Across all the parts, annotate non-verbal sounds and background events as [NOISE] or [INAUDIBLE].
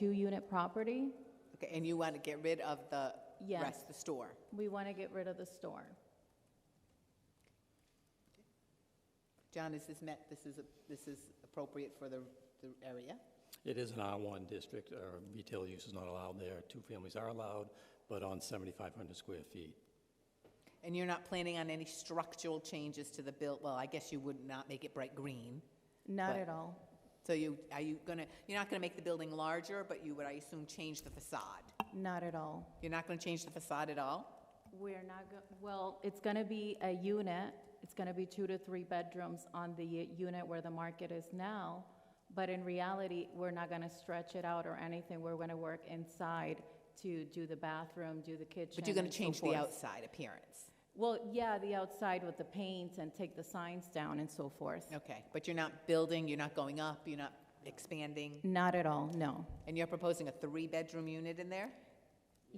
two-unit property. Okay, and you want to get rid of the Yes. rest, the store? We want to get rid of the store. John, is this met, this is, this is appropriate for the, the area? It is an R1 district, uh, retail use is not allowed there. Two families are allowed, but on 7,500 square feet. And you're not planning on any structural changes to the build, well, I guess you would not make it bright green. Not But- at all. So you, are you gonna, you're not gonna make the building larger, but you would, I assume, change the facade? Not at all. You're not gonna change the facade at all? We're not, go- well, it's going to be a unit. It's going to be two to three bedrooms on the u- unit where the market is now. But in reality, we're not going to stretch it out or anything. We're going to work inside to do the bathroom, do the kitchen. But you're gonna and so change the forth. outside appearance? Well, yeah, the outside with the paint and take the signs down and so forth. Okay, but you're not building, you're not going up, you're not expanding? Not at all, no. And you're proposing a three-bedroom unit in there?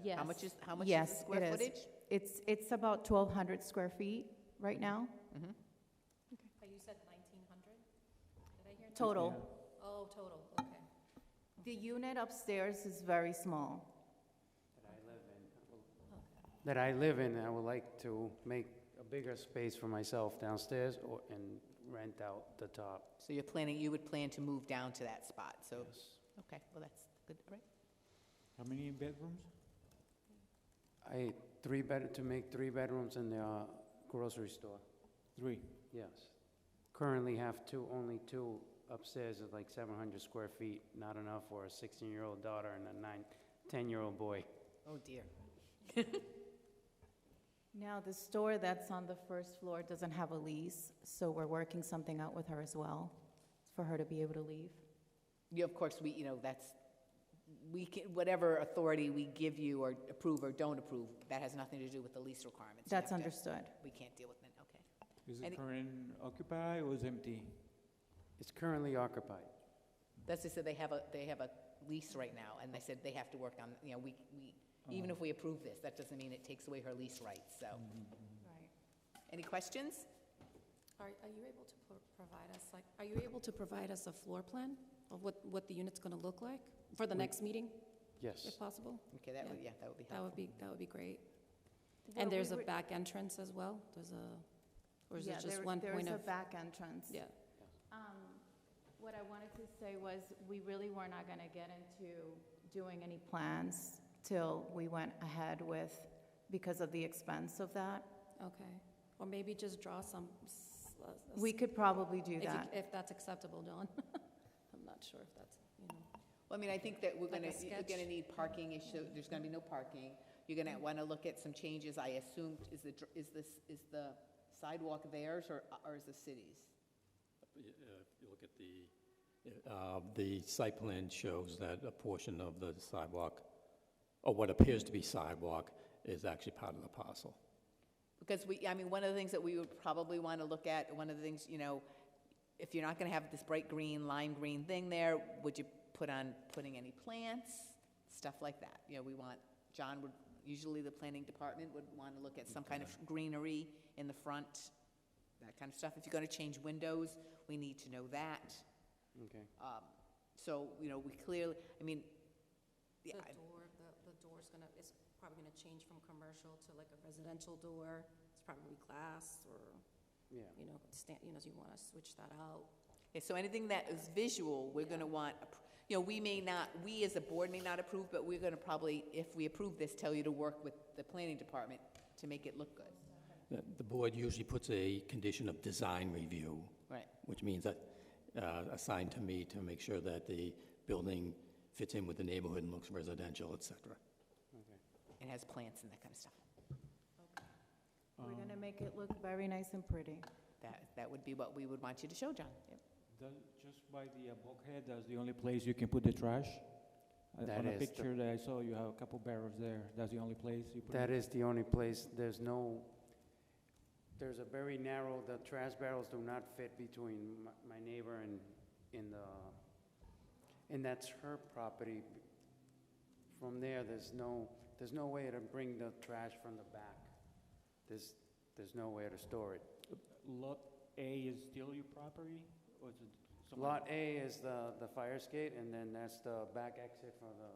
Yes. How much is, how much is Yes, the it square is. footage? It's, it's about 1,200 square feet right now, Mm-hmm. Oh, You said 1,900? Did I hear? total. Oh, total, okay. The unit upstairs is very small. that I live in, I would like to make a bigger space for myself downstairs or, and rent out the top. So you're planning, you would plan to move down to that spot, so, okay, well, that's good, all right? How many bedrooms? I, three bed, to make three bedrooms in the uh, grocery store, Three. yes. Currently have two, only two upstairs is like seven hundred square feet, not enough for a sixteen-year-old daughter and a nine, ten-year-old boy. Oh, dear. Now, the store that's on the first floor doesn't have a lease, so we're working something out with her as well, for her to be able to leave. You, of course, we, you know, that's, we can, whatever authority we give you or approve or don't approve, that has nothing to do with the lease requirements. You That's have to- understood. We can't deal with that, okay. Is And it it- current occupied or is empty? It's currently occupied. That's just that they have a, they have a lease right now, and they said they have to work on, you know, we, we, even if we approve this, that doesn't mean it takes away her lease rights, so. Right. Any questions? Are, are you able to pro- provide us, like, are you able to provide us a floor plan of what, what the unit's gonna look like for the next meeting, Yes, if possible? Okay, that would, yeah, that would be That helpful. would be, that would be great. Well, And there's we a would- back entrance as well? There's a, or is Yeah, it just there- one point There of? is a back entrance. Yeah, Um, What I wanted to say was, we really were not going to get into doing any plans till we went ahead with, because of the expense of that. okay. Or maybe just draw some. s- a- a We s- could probably do if you- that. If that's acceptable, Dawn. [LAUGHS] I'm not sure if that's, you know. Well, I mean, I think that we're Like a gonna, you're gonna sketch. need parking issue, there's gonna be no parking. You're gonna wanna look at some changes, I assume, is the, dr- is this, is the sidewalk theirs or, or is the city's? Uh, If you look at the, uh, the site plan shows that a portion of the sidewalk, or what appears to be sidewalk, is actually part of the parcel. Because we, I mean, one of the things that we would probably wanna look at, one of the things, you know, if you're not gonna have this bright green, lime green thing there, would you put on, putting any plants? Stuff like that, you know, we want, John would, usually the planning department would wanna look at some kind of greenery in the front, that kind of stuff. If you're gonna change windows, we need to know that. okay. Um, So, you know, we clearly, I mean, The yeah, I- door, the, the door's gonna, it's probably gonna change from commercial to like a residential door. It's probably glass or, Yeah, you know, stand, you know, you wanna switch that out. yeah, so anything that is visual, we're going to want, appro- you know, we may not, we as a board may not approve, but we're going to probably, if we approve this, tell you to work with the planning department to make it look good. The the board usually puts a condition of design review, Right. which means that, uh, assigned to me to make sure that the building fits in with the neighborhood and looks residential, et cetera. okay. It has plants and that kind of stuff. Um. We're going to make it look very nice and pretty. That, that would be what we would want you to show, John. Yep. Does- Just by the uh, bulkhead, that's the only place you can put the trash? Uh, That On a is the- picture that I saw, you have a couple barrels there. That's the only place you put it? That is the only place, there's no, there's a very narrow, the trash barrels do not fit between my- my neighbor and, in the, and that's her property. From there, there's no, there's no way to bring the trash from the back. There's, there's nowhere to store it. Lot A is still your property or is it somebody- Lot A is the, the fire escape, and then that's the back exit for the